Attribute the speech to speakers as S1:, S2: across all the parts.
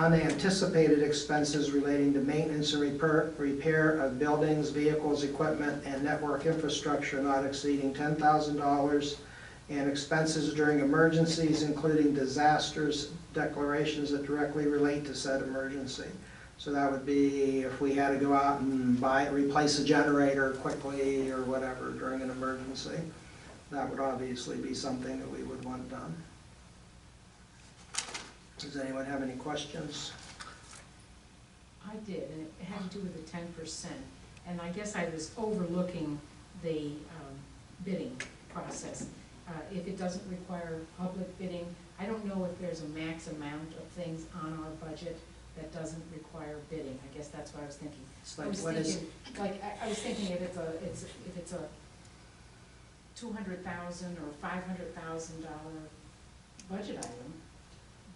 S1: on the anticipated expenses relating to maintenance and repair, repair of buildings, vehicles, equipment, and network infrastructure not exceeding ten thousand dollars, and expenses during emergencies, including disasters, declarations that directly relate to said emergency. So that would be if we had to go out and buy, replace a generator quickly or whatever during an emergency. That would obviously be something that we would want done. Does anyone have any questions?
S2: I did, and it had to do with the ten percent. And I guess I was overlooking the um, bidding process. Uh, If it doesn't require public bidding, I don't know if there's a max amount of things on our budget that doesn't require bidding. I guess that's what I was thinking.
S1: It's
S2: I
S1: like,
S2: was
S1: what is,
S2: thinking, like, I, I was thinking if it's a, it's, if it's a two hundred thousand or five hundred thousand dollar budget item,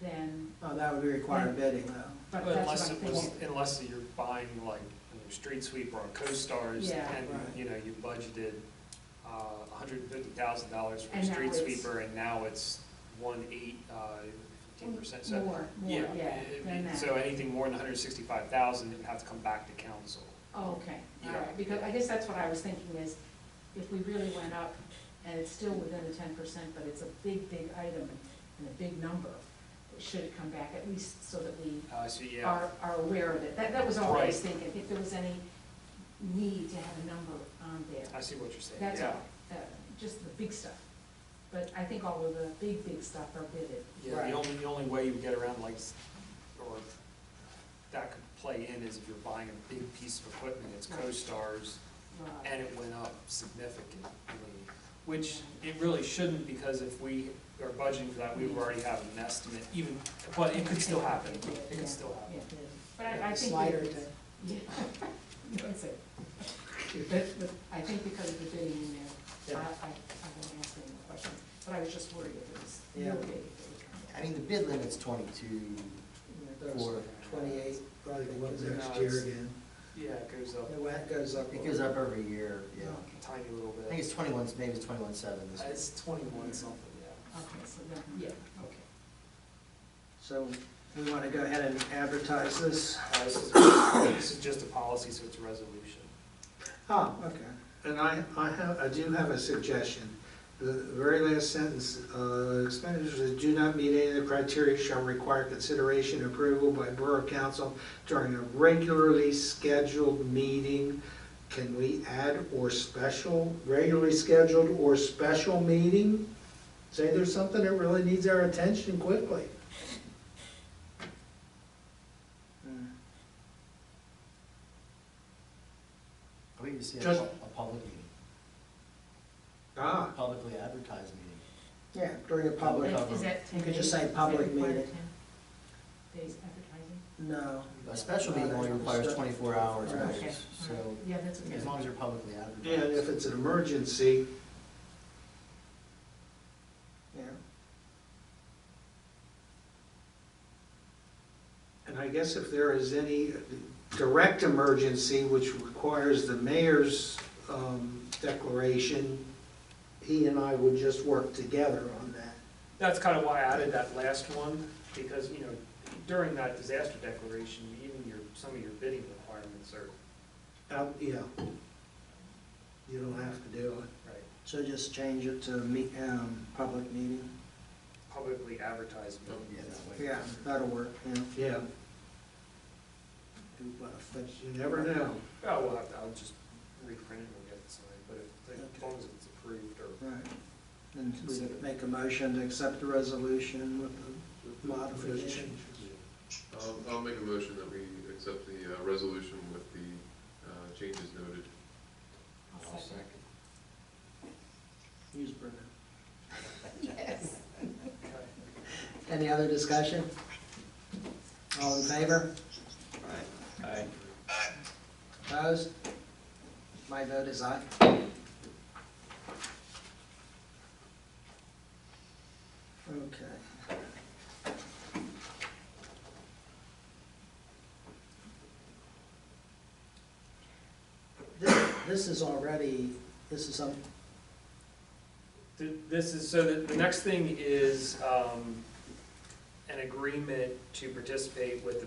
S2: then,
S1: oh, that would require bidding though.
S2: but
S3: Well,
S2: that's what
S3: Unless
S2: I'm
S3: it was,
S2: thinking.
S3: unless you're buying like you know, street sweeper or co-stars
S2: Yeah.
S3: and,
S1: Right.
S3: you know, you budgeted a hundred and fifty thousand dollars for
S2: And now
S3: street
S2: it's-
S3: sweeper and now it's one eight, uh, fifteen percent. So,
S2: More, more, yeah,
S3: it-
S2: than that.
S3: So anything more than hundred sixty-five thousand, it would have to come back to council.
S2: Oh, Okay, all
S3: Yeah.
S2: right, because I guess that's what I was thinking is, if we really went up, and it's still within the ten percent, but it's a big, big item and a big number, should it come back at least so that we
S3: Uh, so yeah,
S2: are, are aware of it? That, that was all I was
S3: Right.
S2: thinking, if there was any need to have a number on there.
S3: I see what you're saying,
S2: That's
S3: yeah.
S2: all, uh, just the big stuff. But I think all of the big, big stuff are bidded.
S3: Yeah,
S1: Right.
S3: the only, the only way you would get around like, s- or that could play in is if you're buying a big piece of equipment, it's
S2: Right.
S3: co-stars,
S2: Right.
S3: and it went up significantly, which it really shouldn't, because if we are budgeting for that, we would already have an estimate, even, but it could still happen, it could still happen.
S2: Yeah. But I, I think.
S1: Slider
S2: it-
S1: to-
S2: Yeah, that's it. But, but I think because of the bidding in there, I, I, I won't ask any more questions, but I was just worried if it was
S1: Yeah.
S2: real big. if it would come
S4: I mean, the bid limit's twenty-two, Four.
S1: Twenty-eight,
S5: Probably go up
S3: Is it
S5: next
S3: not?
S5: year again.
S3: Yeah, it goes up
S1: the wet goes up. a
S4: it goes
S1: little.
S4: up every year, yeah.
S3: a tiny little
S4: I think
S3: bit,
S4: it's twenty-one, maybe it's twenty-one seven this
S3: Uh,
S4: year.
S3: it's twenty-one something, yeah.
S2: Okay, so then, yeah, okay.
S1: So we want to go ahead and advertise this.
S3: Uh, This is, this is just a policy, so it's a resolution.
S1: Oh, okay.
S5: And I, I have, I do have a suggestion. The very last sentence, uh, expenditures that do not meet any of the criteria shall require consideration and approval by Borough Council during a regularly scheduled meeting. Can we add or special, regularly scheduled or special meeting? Say there's something that really needs our attention quickly.
S1: Hmm.
S4: I think you see a
S5: Just-
S4: pu- a public meeting,
S5: Ah,
S4: a publicly advertised meeting.
S1: Yeah, during a public,
S4: Public.
S2: Is that ten
S1: You could just
S2: days?
S1: say
S2: Is that
S1: public
S2: required
S1: meeting.
S2: Ten days advertising?
S1: no.
S4: A special meeting only requires twenty-four hours
S1: Right.
S2: Okay,
S4: notice, so
S2: all right. Yeah, that's okay.
S4: as long as you're publicly
S5: and if
S4: advertised.
S5: it's an emergency,
S1: Yeah,
S5: And I guess if there is any direct emergency which requires the mayor's um, declaration, he and I would just work together on that.
S3: That's kind of why I added that last one, because, you know, during that disaster declaration, even your, some of your bidding requirements are,
S5: Uh, Yeah. You don't have to do it.
S3: right,
S1: so just change it to meet, um, public meeting.
S3: publicly advertised.
S4: Oh, Yeah, that way.
S1: Yeah, that'll work, yeah.
S5: Yeah,
S1: Do about a foot.
S5: but you never know.
S3: Oh, we'll have to, I'll just reprint it and get it signed, but if, as
S1: Okay.
S3: long as it's approved or
S1: Right. And we could make a motion to accept the resolution with the modification.
S6: I'll, I'll make a motion that we accept the uh, resolution with the uh, changes noted.
S2: I'll second.
S1: Use Brenda.
S2: Yes.
S1: Any other discussion? All in favor?
S4: Aye.
S1: Opposed? My vote is aye. Okay. This, this is already, this is some,
S3: Th- This is, so the, the next thing is, um, an agreement to participate with the